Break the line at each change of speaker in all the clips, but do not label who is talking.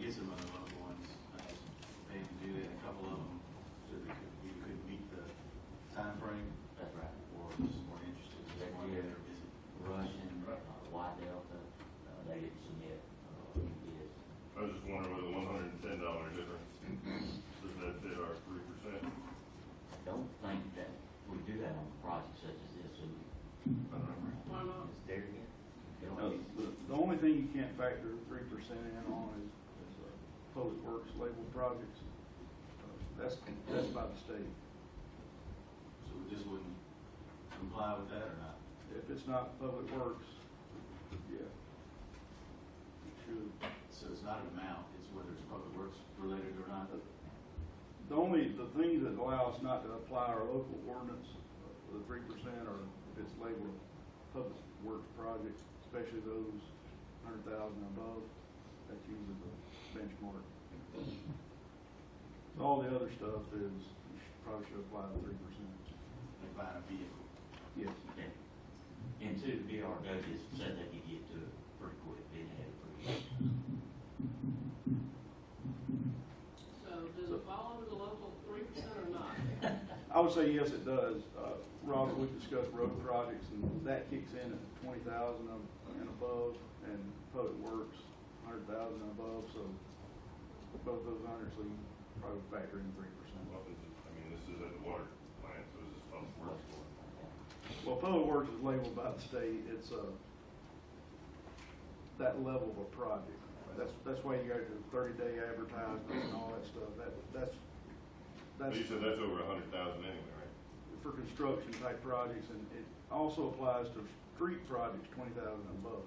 is among the local ones. Uh, They can do that, a couple of them, so that we could meet the timeframe.
That's right.
Or just more interested, just one that are busy.
Russian, uh, Y Delta, uh, they didn't submit, uh, any bids.
I was just wondering whether one hundred and ten dollar difference, does that fit our three percent?
I don't think that we do that on a project such as this, and
I don't know.
Why not?
it's there again. They don't
No,
need-
The the only thing you can't factor three percent in on is, is uh, public works labeled projects. Uh, That's, that's by the state.
So we just wouldn't comply with that or not?
If it's not public works, yeah. It should.
So it's not an amount, it's whether it's public works related or not.
The only, the thing that allows not to apply our local ordinance, uh, the three percent, or if it's labeled public works projects, especially those hundred thousand and above, that's usually the benchmark. So All the other stuff is, you should- probably should apply the three percent.
Like buying a vehicle.
Yes.
Okay. And two, the BRW said they could get to it pretty quick, they didn't have it pretty quick.
So does it fall under the local three percent or not?
I would say yes, it does. Uh, Robert, we discussed road projects, and that kicks in at twenty thousand and above, and public works, hundred thousand and above, so both those hundreds, so you probably factor in three percent.
Well, this is- I mean, this is at the water plant, so this is public works.
Well, public works is labeled by the state, it's uh that level of a project. That's, that's why you got your thirty-day advertisement and all that stuff, that, that's,
But
that's.
you said that's over a hundred thousand anyway, right?
for construction type projects, and it also applies to street projects twenty thousand and above.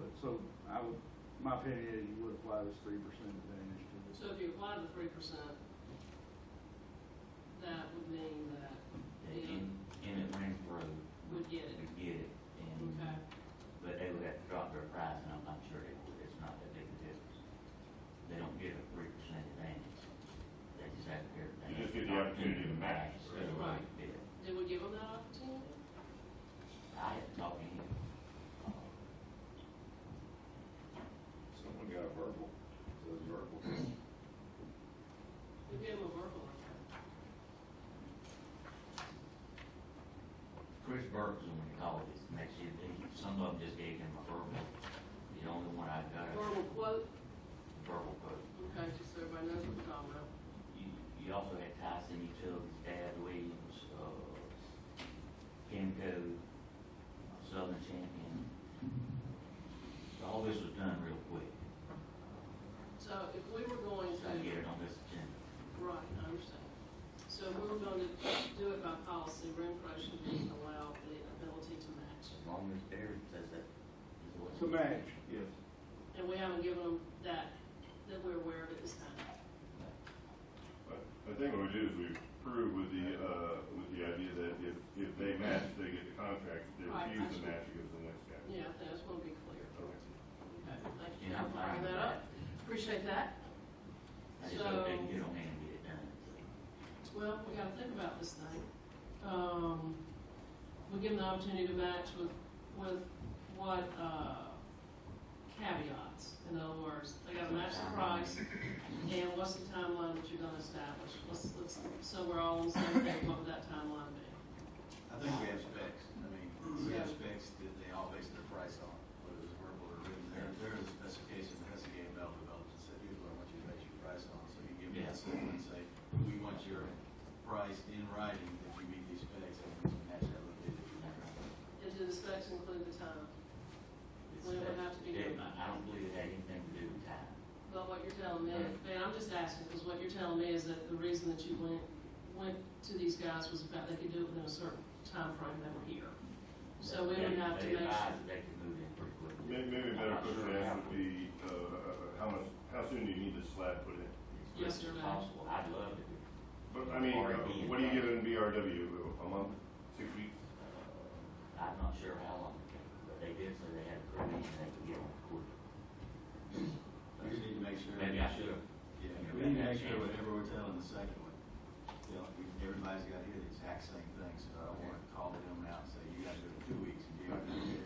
But, so, I would, my opinion is you would apply this three percent advantage to this.
So if you apply the three percent, that would mean that
They in, in at Renfro
we'd get it.
would get it, and,
Okay,
but they would have to drop their price, and I'm not sure they would, it's not that big a difference. They don't get a three percent advantage, they just have to. they
You
have
just get the opportunity to match,
Instead of
right?
a bid.
did we give them that opportunity?
I haven't talked to him.
Someone got a verbal, says verbal.
We gave them a verbal, okay.
Chris Burke's the one that called this next year, they, some of them just gave him a verbal, the only one I got a
verbal quote,
verbal quote.
okay, just so everybody knows what we're talking about.
You, you also had Tyson Utilities, Dad Williams, uh, Kenco, Southern Champion. All this was done real quick,
So if we were going
so I
to,
get it on this agenda.
right, I understand. So if we were going to do it by policy, Renfro should be allowed the ability to match.
As long as Darren says that. is what-
To match, yes.
And we haven't given them that, that we're aware of at this time.
But I think what we do is we prove with the, uh, with the idea that if, if they match, they get the contract, if they refuse
Right,
to
actually.
match, it goes to the next guy.
Yeah, I think that's going to be clear.
Okay.
Okay, thank you
Yeah, I'm
for
fine
bringing
with that.
that up. Appreciate that.
I just hope they can
So-
get on hand and get it done, so.
Well, we gotta think about this thing. Um, we give them the opportunity to match with, with what, uh, caveats, in other words, they gotta match the price, and what's the timeline that you're gonna establish? Let's, let's, so we're all on the same page, what would that timeline be?
I think we have specs. I mean, we have specs that they all base their price on, whether it's verbal or written. There, there is a specification that has to get Bell developed and said, here's what I want you to base your price on. So you give me a
Yeah.
sample and say, we want your price in writing that you meet these specs and we can match that with it.
And do the specs include the time,
It's-
We don't have to be
they-
done by-
I don't believe it had anything to do with time.
but what you're telling me, and I'm just asking, because what you're telling me is that the reason that you went, went to these guys was about they could do it within a certain timeframe they were here. So we would
They-
have to
They
make sure.
advised that they could move in pretty quickly.
May- Maybe a
I'm
better
not
question
sure
to
how
ask would be, uh, how much, how soon do you need the slab put in?
quick
Yes,
as
sir, ma'am.
Possible, I'd love to do
But, I mean,
Or
uh,
be in
what do you
front.
give in BRW, a month, six weeks?
Uh, I'm not sure how long it took, but they did say they had a grant and they could get on court.
We just need to make sure.
Maybe I should have.
Yeah, we need to make sure whatever we're telling the second one, you know, we- everybody's got to hear the exact same thing, so I don't want to call them out and say, you got to do it in two weeks, and you got to do it in